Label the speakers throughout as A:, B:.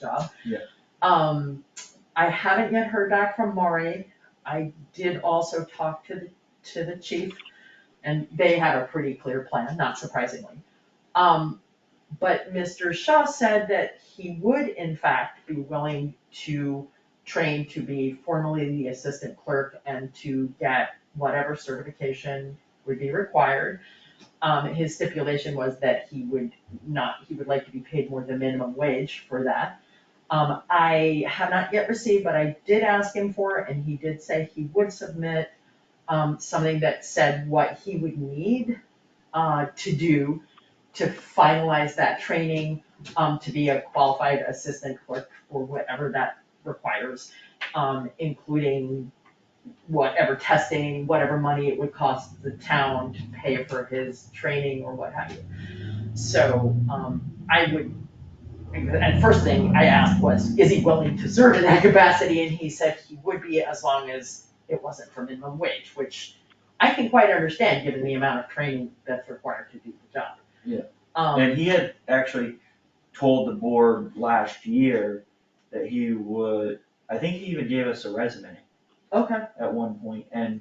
A: job.
B: Yeah.
A: Um, I haven't yet heard back from Maury, I did also talk to the, to the chief, and they had a pretty clear plan, not surprisingly. Um, but Mr. Shaw said that he would in fact be willing to train to be formally the assistant clerk and to get whatever certification would be required. Um, his stipulation was that he would not, he would like to be paid more than minimum wage for that. Um, I have not yet received, but I did ask him for, it, and he did say he would submit um, something that said what he would need uh, to do to finalize that training, um, to be a qualified assistant clerk or whatever that requires, um, including whatever testing, whatever money it would cost the town to pay for his training or what have you. So, um, I would, and first thing I asked was, is he willing to serve in that capacity? And he said he would be as long as it wasn't for minimum wage, which I can quite understand, given the amount of training that's required to do the job.
B: Yeah.
A: Um,
B: And he had actually told the board last year that he would, I think he even gave us a resume
A: okay,
B: at one point, and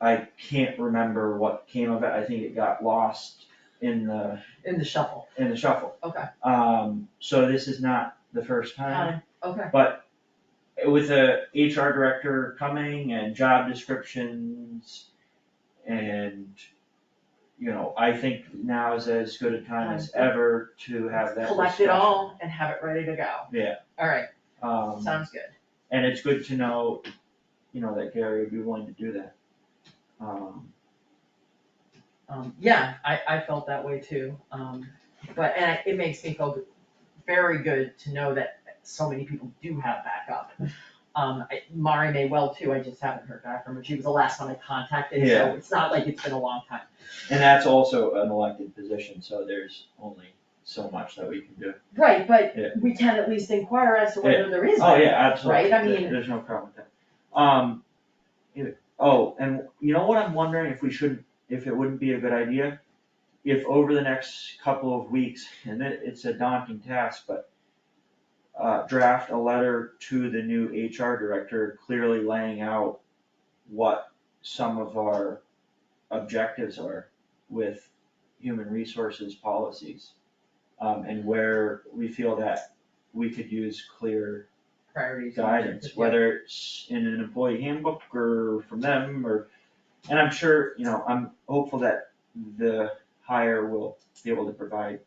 B: I can't remember what came of it, I think it got lost in the,
A: in the shuffle,
B: in the shuffle.
A: Okay.
B: Um, so this is not the first time,
A: Got it. okay,
B: but with a HR director coming and job descriptions and, you know, I think now is as good a time as ever to have that
A: collect it all and have it ready to go.
B: Yeah.
A: Alright,
B: discussion. Um,
A: sounds good.
B: and it's good to know, you know, that Gary would be willing to do that. Um,
A: Um, yeah, I, I felt that way too, um, but, and I- it makes me feel very good to know that so many people do have backup. Um, I, Mari may well too, I just haven't heard back from her, she was the last one I contacted, so
B: Yeah.
A: it's not like it's been a long time.
B: and that's also an elected position, so there's only so much that we can do.
A: Right, but
B: Yeah.
A: we can at least inquire as to whether there is.
B: Oh, yeah,
A: backup,
B: absolutely,
A: Right, I
B: There-
A: mean-
B: there's no problem with that. Um, you- oh, and you know what I'm wondering if we shouldn't, if it wouldn't be a good idea? If over the next couple of weeks, and it, it's a daunting task, but uh, draft a letter to the new HR director, clearly laying out what some of our objectives are with human resources policies. Um, and where we feel that we could use clear
A: Priorities. and
B: guidance,
A: objectives, yeah.
B: whether it's in an employee handbook or from them or, and I'm sure, you know, I'm hopeful that the hire will be able to provide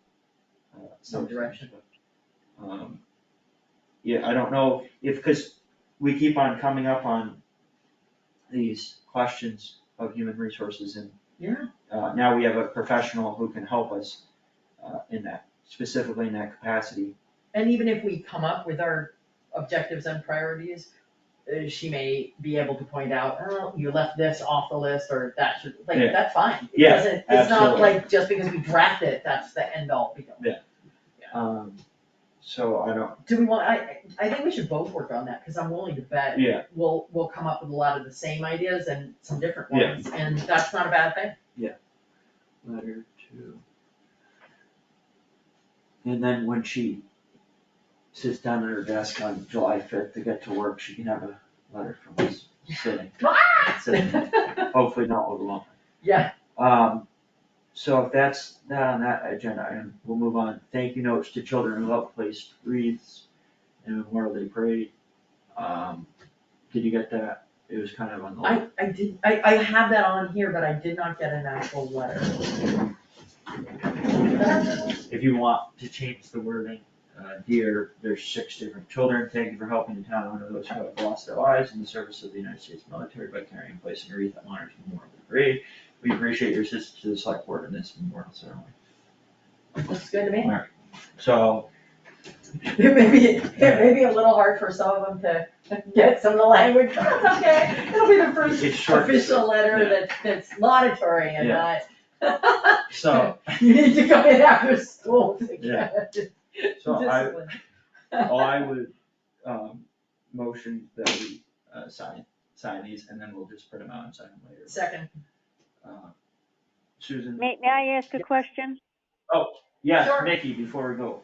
B: uh,
A: Some direction.
B: but, Um, yeah, I don't know if, cause we keep on coming up on these questions of human resources and
A: Yeah.
B: uh, now we have a professional who can help us uh, in that, specifically in that capacity.
A: And even if we come up with our objectives and priorities, uh, she may be able to point out, oh, you left this off the list, or that should, like,
B: Yeah.
A: that's fine. It
B: Yeah,
A: doesn't- It's not
B: absolutely.
A: like just because we draft it, that's the end all be all.
B: Um, so I don't,
A: Do we want, I, I think we should both work on that, cause I'm willing to bet
B: yeah,
A: we'll, we'll come up with a lot of the same ideas and some different
B: Yeah.
A: ones, and that's not a bad thing.
B: letter to. And then when she sits down at her desk on July fifth to get to work, she can have a letter from us sitting. Sitting, hopefully not overwhelming.
A: Yeah.
B: Um, so if that's that on that agenda item, we'll move on. Thank you notes to children who helped place wreaths and Memorial Day parade. Um, did you get that? It was kind of on the.
A: I, I did, I, I have that on here, but I did not get an actual letter.
B: If you want to change the wording, uh, dear, there's six different children, thank you for helping the town, honor those who have lost their lives in the service of the United States military by carrying and placing a wreath that honors Memorial Day Parade. We appreciate your assistance to the select board in this memorial ceremony.
A: Looks good to me.
B: Alright, so,
A: It may be, it may be a little hard for some of them to get some of the language, but it's okay, it'll be the first
B: It's short.
A: official letter
B: Yeah.
A: that, that's laudatory and not,
B: so,
A: you need to come in after school to get
B: so I,
A: disciplined.
B: I would, um, motion that we, uh, sign, sign these, and then we'll just print them out and sign them later.
A: Second,
B: Uh, Susan,
C: May, may I ask a
A: Yes.
C: question?
B: yes,
A: Sure.
B: Nikki, before we go,